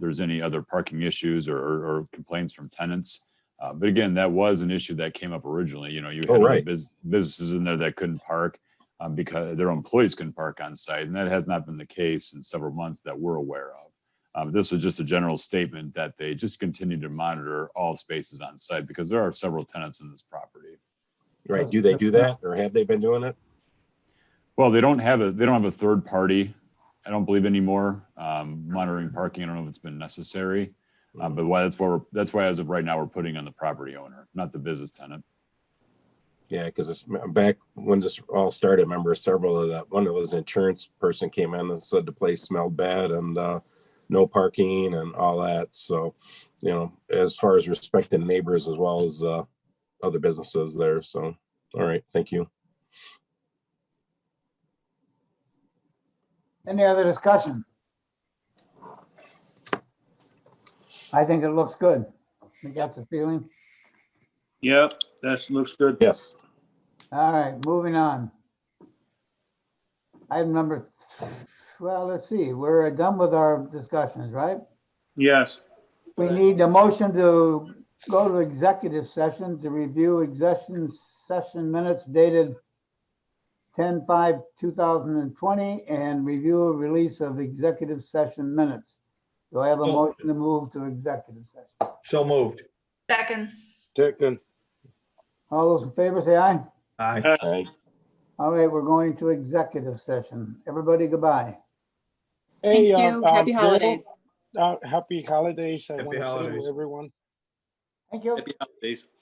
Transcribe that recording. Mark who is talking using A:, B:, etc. A: there's any other parking issues or, or or complaints from tenants. Uh, But again, that was an issue that came up originally, you know, you
B: Oh,
A: had other
B: right.
A: bus- businesses in there that couldn't park um, because their employees couldn't park on site, and that has not been the case in several months that we're aware of. Um, This is just a general statement that they just continue to monitor all spaces on site because there are several tenants in this property.
B: Right, do they do that or have they been doing it?
A: Well, they don't have a, they don't have a third party, I don't believe anymore, um, monitoring parking. I don't know if it's been necessary. Uh, but why, that's why we're, that's why as of right now, we're putting on the property owner, not the business tenant.
B: Yeah, because it's back when this all started, I remember several of that, one of those insurance person came in and said the place smelled bad and uh, no parking and all that. So, you know, as far as respecting neighbors as well as uh, other businesses there. So, all right, thank you.
C: Any other discussion? I think it looks good. You got the feeling?
D: Yep, that looks good.
B: Yes,
C: All right, moving on. Item number, th- well, let's see, we're done with our discussions, right?
D: Yes,
C: We need a motion to go to executive session to review executive session minutes dated 10-5-2020 and review a release of executive session minutes. Do I have a
E: So-
C: motion to move to executive session?
E: So moved.
F: Second,
G: Second,
C: All those in favor say aye.
E: Aye.
B: I-
C: All right, we're going to executive session. Everybody goodbye.
G: Hey,
H: Thank
G: uh,
H: you.
G: um,
H: Happy
G: Bill,
H: holidays.
G: Uh, happy holidays. I
E: Happy
G: want to say
E: holidays.
G: to everyone.
C: Thank you.
D: happy holidays.